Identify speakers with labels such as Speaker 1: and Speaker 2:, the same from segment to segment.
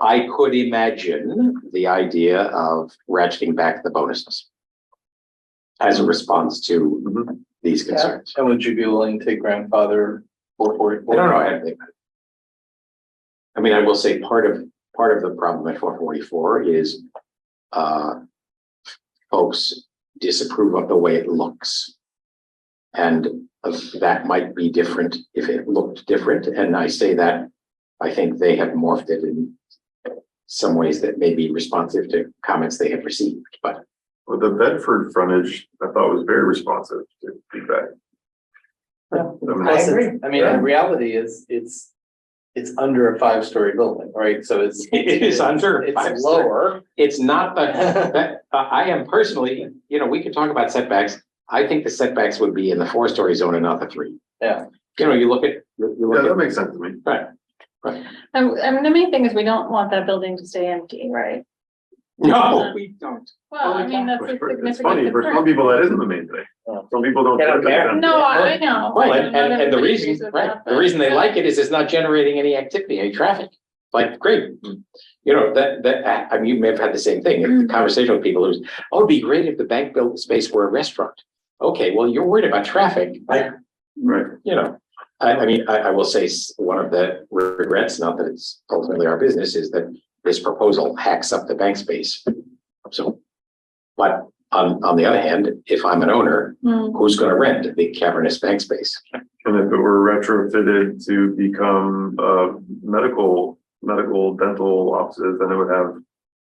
Speaker 1: I could imagine the idea of ratcheting back the bonuses as a response to these concerns.
Speaker 2: And would you be willing to grandfather four forty-four?
Speaker 1: I don't know. I don't think- I mean, I will say part of, part of the problem at four forty-four is, uh, folks disapprove of the way it looks. And that might be different if it looked different. And I say that, I think they have morphed it in some ways that may be responsive to comments they have received, but
Speaker 3: Well, the Bedford frontage, I thought was very responsive to feedback. I mean,
Speaker 2: I agree. I mean,
Speaker 3: Yeah.
Speaker 2: the reality is, it's, it's under a five-story building, right? So it's.
Speaker 1: It is under a
Speaker 2: It's
Speaker 1: five-story.
Speaker 2: lower.
Speaker 1: it's not the That, I, I am personally, you know, we could talk about setbacks. I think the setbacks would be in the four-story zone and not the three.
Speaker 2: Yeah.
Speaker 1: You know, you look at, you you
Speaker 3: Yeah, that
Speaker 1: look
Speaker 3: makes sense to me.
Speaker 4: Um, I mean, the main thing is we don't want that building to stay empty, right?
Speaker 1: at, no, we don't.
Speaker 4: Well, I mean, that's a
Speaker 3: It's funny,
Speaker 4: significant
Speaker 3: for some
Speaker 4: concern.
Speaker 3: people, that isn't the main thing.
Speaker 2: Yeah.
Speaker 3: Some people don't.
Speaker 2: They don't
Speaker 3: care.
Speaker 2: care.
Speaker 4: No, I I know.
Speaker 1: Well,
Speaker 4: I
Speaker 1: and,
Speaker 4: know not
Speaker 1: and, and the
Speaker 4: everybody
Speaker 1: reason,
Speaker 4: agrees with
Speaker 1: right,
Speaker 4: that,
Speaker 1: the
Speaker 4: but-
Speaker 1: reason they like it is it's not generating any activity, any traffic. Like, great, you know, that, that, I- I mean, you may have had the same thing, the conversation with people who's, oh, it'd be great if the bank built space were a restaurant. Okay, well, you're worried about traffic. I,
Speaker 3: Right,
Speaker 1: you know, I, I mean, I, I will say s- one of the regrets, not that it's ultimately our business, is that this proposal hacks up the bank space. So, but on, on the other hand, if I'm an owner,
Speaker 4: Hmm.
Speaker 1: who's gonna rent the cavernous bank space?
Speaker 3: and if it were retrofitted to become, uh, medical, medical dental offices, then it would have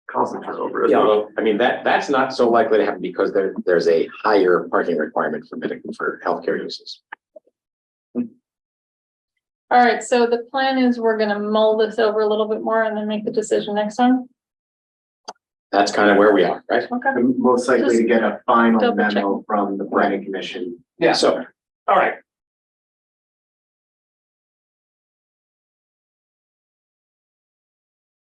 Speaker 3: constant turnover. as
Speaker 1: Yeah,
Speaker 3: well.
Speaker 1: well, I mean, that, that's not so likely to happen because there, there's a higher parking requirement for medical, for healthcare uses.
Speaker 4: All right, so the plan is we're gonna mull this over a little bit more and then make the decision next time.
Speaker 1: That's kind of where we are, right?
Speaker 4: Okay.
Speaker 5: I'm most likely to get a final
Speaker 4: Double check.
Speaker 5: memo from the planning commission.
Speaker 2: Yeah.
Speaker 1: So, all right,